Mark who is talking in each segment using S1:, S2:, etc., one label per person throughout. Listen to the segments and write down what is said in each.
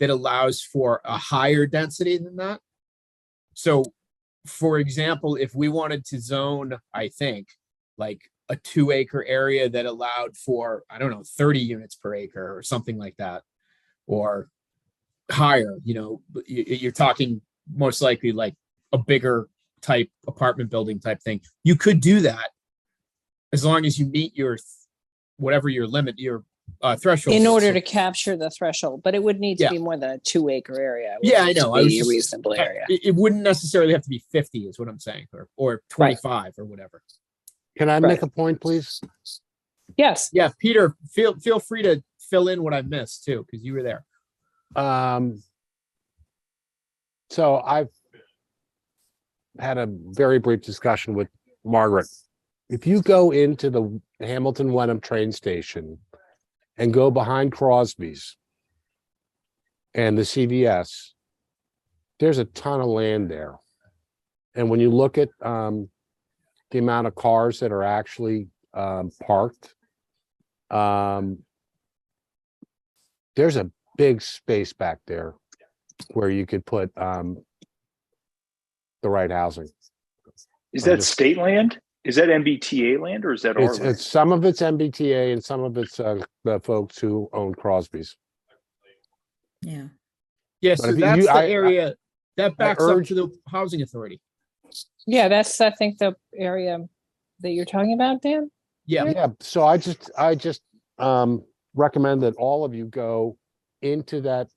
S1: that allows for a higher density than that. So, for example, if we wanted to zone, I think, like a two acre area that allowed for, I don't know, thirty units per acre or something like that. Or higher, you know, but you, you're talking most likely like a bigger type apartment building type thing. You could do that as long as you meet your, th- whatever your limit, your uh, threshold.
S2: In
S1: is.
S2: order
S1: So-
S2: to capture the threshold, but it would need
S1: Yeah.
S2: to be more than a two acre area. It would
S1: Yeah, I
S2: need to
S1: know. I was
S2: be a
S1: just-
S2: Reasonable
S1: Uh,
S2: area.
S1: It, it wouldn't necessarily have to be fifty is what I'm saying, or, or
S2: Right.
S1: twenty-five or whatever.
S3: Can I
S2: Right.
S3: make a point, please?
S2: Yes,
S1: Yeah, Peter, feel, feel free to fill in what I missed too, because you were there.
S3: Um. So I've had a very brief discussion with Margaret. If you go into the Hamilton Wenham train station and go behind Crosby's and the CVS, there's a ton of land there. And when you look at um the amount of cars that are actually um parked, um there's a big space back there where you could put um the right housing.
S4: Is
S3: I'm
S4: that
S3: just-
S4: state land? Is that MBTA land or is that our
S3: It's,
S4: land?
S3: it's, some of it's MBTA and some of it's uh the folks who own Crosby's.
S5: Yeah.
S1: Yeah,
S3: But
S1: so
S3: if you-
S1: that's
S3: you-
S1: the
S3: I- I-
S1: area, that backs up
S3: urge-
S1: to the housing authority.
S2: yeah, that's, I think, the area that you're talking about, Dan.
S1: Yeah,
S3: Yeah, so I just, I just um recommend that all of you go into that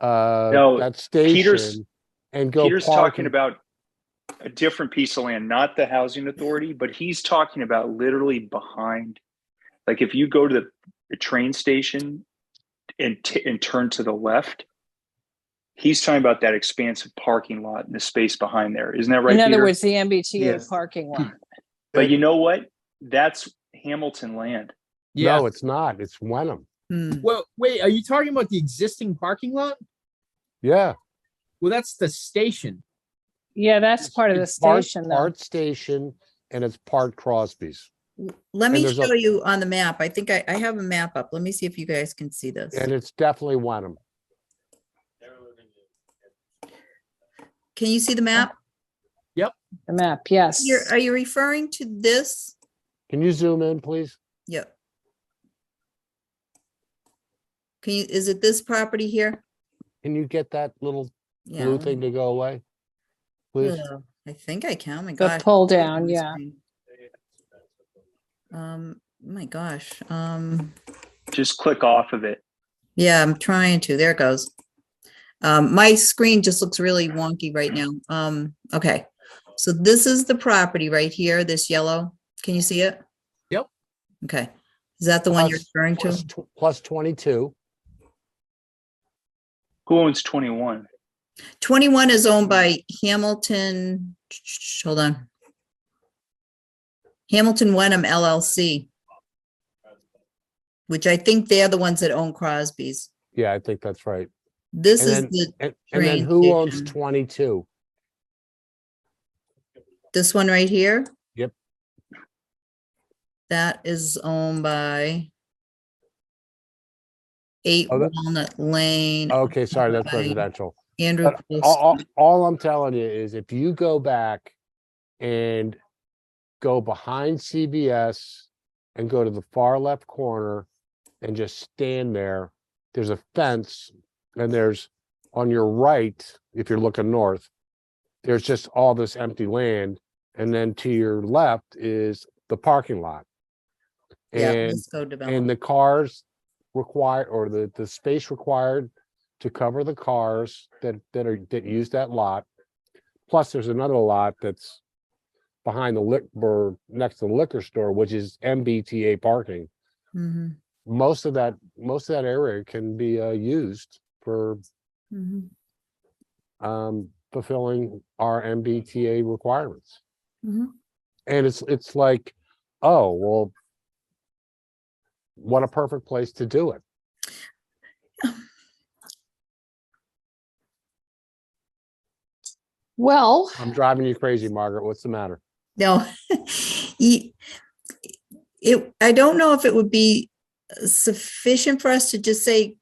S3: uh,
S4: No,
S3: that
S4: Peter's-
S3: station and go
S4: Peter's
S3: park
S4: talking
S3: and-
S4: about a different piece of land, not the housing authority, but he's talking about literally behind. Like if you go to the, the train station and, t- and turn to the left, he's talking about that expansive parking lot and the space behind there. Isn't that right?
S2: In other
S4: Peter?
S2: words, the MBTA
S4: Yes.
S2: parking
S1: Hmm.
S2: lot.
S4: but you know what? That's Hamilton land.
S1: yeah.
S3: No, it's not. It's Wenham.
S5: Mm.
S1: Well, wait, are you talking about the existing parking lot?
S3: Yeah.
S1: Well, that's the station.
S2: Yeah, that's part of the
S3: It's part-
S2: station though.
S3: Part station and it's part Crosby's.
S5: L- Let
S3: And
S5: me
S3: there's a-
S5: show you on the map. I think I, I have a map up. Let me see if you guys can see this.
S3: And it's definitely Wenham.
S5: Can you see the map?
S2: The map, yes.
S5: You're, are you referring to this?
S3: Can you zoom in, please?
S5: Yep. Can you, is it this property here?
S3: Can you get that little
S5: Yeah.
S3: blue thing to go away? Please,
S5: Ugh, I think I can. Oh my
S2: The
S5: gosh.
S2: pull
S5: look at
S2: down,
S5: my
S2: yeah.
S5: screen. Um, my gosh, um,
S4: Just click off of it.
S5: yeah, I'm trying to. There it goes. Um, my screen just looks really wonky right now. Um, okay. So this is the property right here, this yellow. Can you see it?
S1: Yep.
S5: Okay. Is that the one you're
S3: Plus-
S5: referring
S3: plus
S5: to?
S3: tw- plus twenty-two.
S4: Who owns 21?
S5: 21 is owned by Hamilton, hold on. Hamilton Wenham LLC. Which I think they're the ones that own Crosby's.
S3: Yeah, I think that's right.
S5: This
S3: And
S5: is
S3: then-
S5: the,
S3: And, and then
S5: Train
S3: who owns
S5: station.
S3: twenty-two?
S5: this one right here.
S3: Yep.
S5: That is owned by Eight
S3: Oh, that- Oh,
S5: Walnut Lane,
S3: Okay, sorry, that's
S5: Right.
S3: residential.
S5: Andrew.
S3: But all,
S5: Post.
S3: all, all I'm telling you is if you go back and go behind CBS and go to the far left corner and just stand there, there's a fence and there's on your right, if you're looking north, there's just all this empty land. And then to your left is the parking lot.
S5: Yeah,
S3: And
S5: Lisco
S3: and
S5: Development.
S3: the cars required, or the, the space required to cover the cars that, that are, that use that lot. Plus, there's another lot that's behind the liquor, or next to the liquor store, which is MBTA parking.
S5: Mhm,
S3: Most of that, most of that area can be, uh, used for,
S5: mhm,
S3: um, fulfilling our MBTA requirements.
S5: mhm.
S3: And it's, it's like, oh, well, what a perfect place to do it.
S2: Well,
S3: I'm driving you crazy, Margaret. What's the matter?
S5: No. Ye- It, I don't know if it would be sufficient for us to just say